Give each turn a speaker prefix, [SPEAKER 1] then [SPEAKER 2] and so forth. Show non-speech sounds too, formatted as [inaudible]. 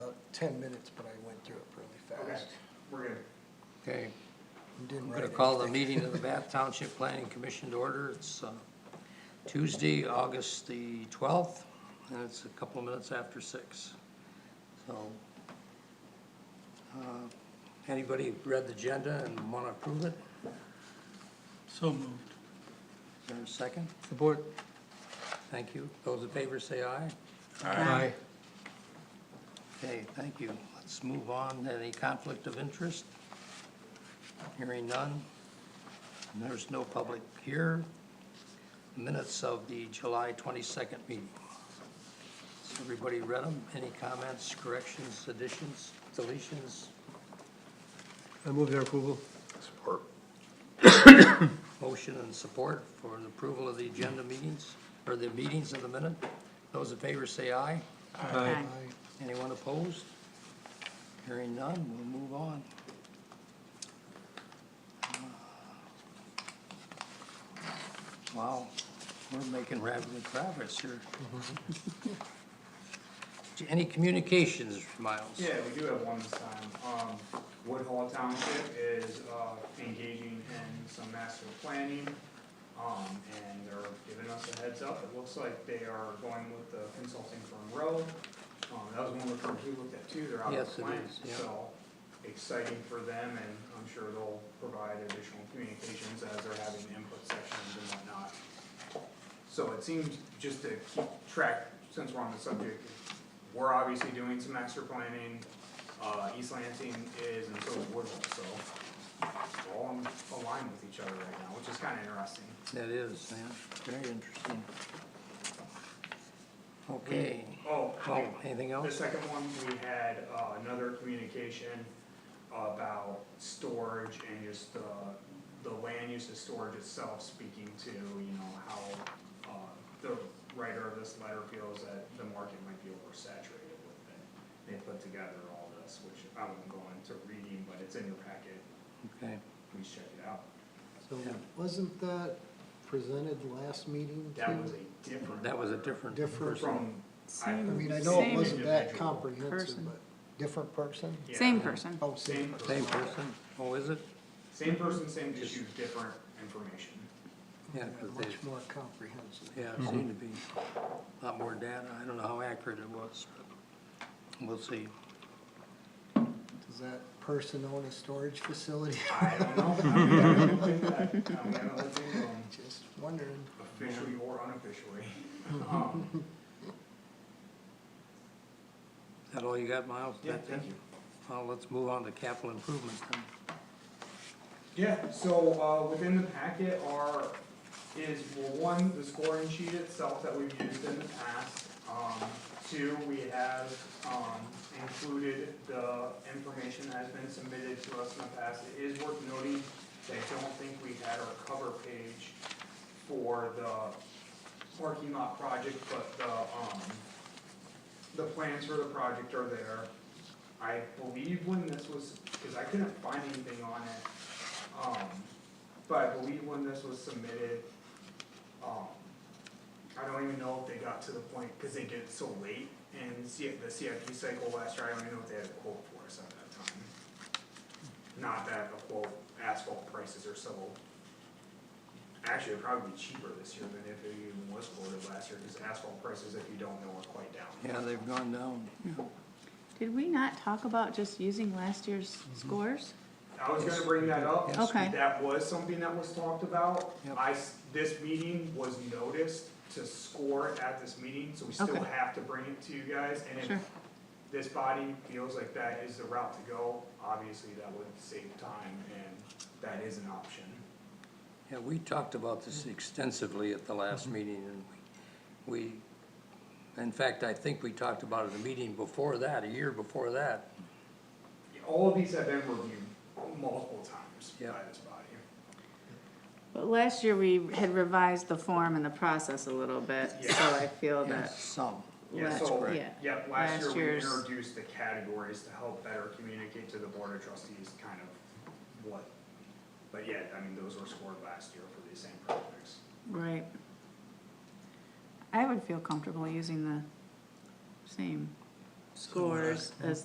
[SPEAKER 1] ten minutes, but I went through it really
[SPEAKER 2] Okay,
[SPEAKER 1] fast.
[SPEAKER 2] we're good.
[SPEAKER 3] Okay,
[SPEAKER 1] and Didn't
[SPEAKER 3] I'm
[SPEAKER 1] write
[SPEAKER 3] gonna call the
[SPEAKER 1] anything.
[SPEAKER 3] meeting of the Bath Township Planning Commission to order. It's uh, Tuesday, August the twelfth, and it's a couple of minutes after six. So, uh, anybody read the agenda and wanna approve it?
[SPEAKER 4] So moved.
[SPEAKER 3] Is there a second?
[SPEAKER 1] Support.
[SPEAKER 3] Thank you. Those in favor say aye.
[SPEAKER 1] Aye.
[SPEAKER 3] Okay, thank you. Let's move on. Any conflict of interest? Hearing none. And There's no public here. Minutes of the July 22nd meeting. Has everybody read them? Any comments, corrections, additions, deletions?
[SPEAKER 1] I move their approval.
[SPEAKER 3] Motion and support for the approval of the agenda meetings, or the meetings of the minute. Those in favor say aye.
[SPEAKER 1] Aye.
[SPEAKER 3] Anyone opposed? Hearing none, we'll move on. Uh, Wow, we're making rapid progress here. Any communications, Miles?
[SPEAKER 2] Yeah, we do have one this time. Um, Woodhall Township is, uh, engaging in some master planning. Um, and they're giving us a heads up. It looks like they are going with the consulting firm Rowe. Um, that was one of the firms we looked at too. They're out
[SPEAKER 3] Yes,
[SPEAKER 2] of
[SPEAKER 3] it
[SPEAKER 2] Atlanta,
[SPEAKER 3] is, yeah.
[SPEAKER 2] so exciting for them and I'm sure they'll provide additional communications as they're having input sessions and whatnot. So it seems, just to keep track, since we're on the subject, we're obviously doing some extra planning. Uh, East Lansing is, and so is Woodville, so we're all in line with each other right now, which is kinda interesting.
[SPEAKER 3] That is, yeah, very interesting. Okay,
[SPEAKER 2] Oh,
[SPEAKER 3] oh, anything
[SPEAKER 2] The
[SPEAKER 3] else?
[SPEAKER 2] second one, we had uh, another communication about storage and just the, the land use of storage itself, speaking to, you know, how uh, the writer of this letter feels that the market might be oversaturated with it. They put together all this, which I won't go into reading, but it's in your packet,
[SPEAKER 3] Okay,
[SPEAKER 2] please check it out.
[SPEAKER 1] So wasn't that presented last meeting?
[SPEAKER 2] That
[SPEAKER 1] too?
[SPEAKER 2] was a different.
[SPEAKER 3] that was a
[SPEAKER 2] letter
[SPEAKER 3] different
[SPEAKER 1] Different
[SPEAKER 3] person.
[SPEAKER 2] From. I
[SPEAKER 1] I mean, I
[SPEAKER 2] same
[SPEAKER 1] know it wasn't that
[SPEAKER 2] individual.
[SPEAKER 1] comprehensive,
[SPEAKER 5] Person.
[SPEAKER 1] but different person?
[SPEAKER 2] Yeah.
[SPEAKER 5] Same person.
[SPEAKER 1] Oh, same.
[SPEAKER 3] Same person, oh, is it?
[SPEAKER 2] Same person, same issue, different information.
[SPEAKER 3] Yeah,
[SPEAKER 1] Yeah,
[SPEAKER 3] 'cause they-
[SPEAKER 1] Much more comprehensive.
[SPEAKER 3] Yeah, it seemed to be a lot more data. I don't know how accurate it was, but we'll see.
[SPEAKER 1] Does that person own a storage facility? [laughs]
[SPEAKER 2] I don't know. I'm gonna let them do that. I'm gonna let them, um,
[SPEAKER 1] Just wondering.
[SPEAKER 2] officially or unofficially. Um,
[SPEAKER 3] Is that all you got, Miles?
[SPEAKER 2] Yeah,
[SPEAKER 3] That's it?
[SPEAKER 2] thank you.
[SPEAKER 3] Well, let's move on to capital improvements then.
[SPEAKER 2] Yeah, so, uh, within the packet are, is, well, one, the scoring sheet itself that we've used in the past. Um, two, we have, um, included the information that has been submitted to us in the past. It is worth noting that I don't think we had our cover page for the parking lot project, but the, um, the plans for the project are there. I believe when this was, cause I couldn't find anything on it, um, but I believe when this was submitted, um, I don't even know if they got to the point, cause they get so late in C, the CIP cycle last year, I don't even know if they had a quote for us at that time. Not that the quote, asphalt prices are so, actually, it'd probably be cheaper this year than if it even was quoted last year, cause asphalt prices, if you don't know, are quite down.
[SPEAKER 3] Yeah, they've gone down.
[SPEAKER 5] Did we not talk about just using last year's
[SPEAKER 2] Mm-hmm.
[SPEAKER 5] scores?
[SPEAKER 2] I was gonna bring that up.
[SPEAKER 3] Yes.
[SPEAKER 5] Okay.
[SPEAKER 2] That was something that was talked about.
[SPEAKER 3] Yep.
[SPEAKER 2] I s this meeting was noticed to score at this meeting, so we still
[SPEAKER 5] Okay.
[SPEAKER 2] have to bring it to you guys. And
[SPEAKER 5] Sure.
[SPEAKER 2] if this body feels like that is the route to go, obviously that would save time and that is an option.
[SPEAKER 3] Yeah, we talked about this extensively at the last meeting and we, we- in fact, I think we talked about it a meeting before that, a year before that.
[SPEAKER 2] All of these have been reviewed multiple times by
[SPEAKER 3] Yep.
[SPEAKER 2] this body.
[SPEAKER 5] But last year, we had revised the form and the process a little bit, so I feel that,
[SPEAKER 3] Some.
[SPEAKER 2] Yeah,
[SPEAKER 5] Last-
[SPEAKER 2] so,
[SPEAKER 5] yeah,
[SPEAKER 2] yeah, last
[SPEAKER 5] last
[SPEAKER 2] year we
[SPEAKER 5] year's-
[SPEAKER 2] introduced the categories to help better communicate to the board of trustees kind of what. But yeah, I mean, those were scored last year for these same projects.
[SPEAKER 5] right? I would feel comfortable using the same scores as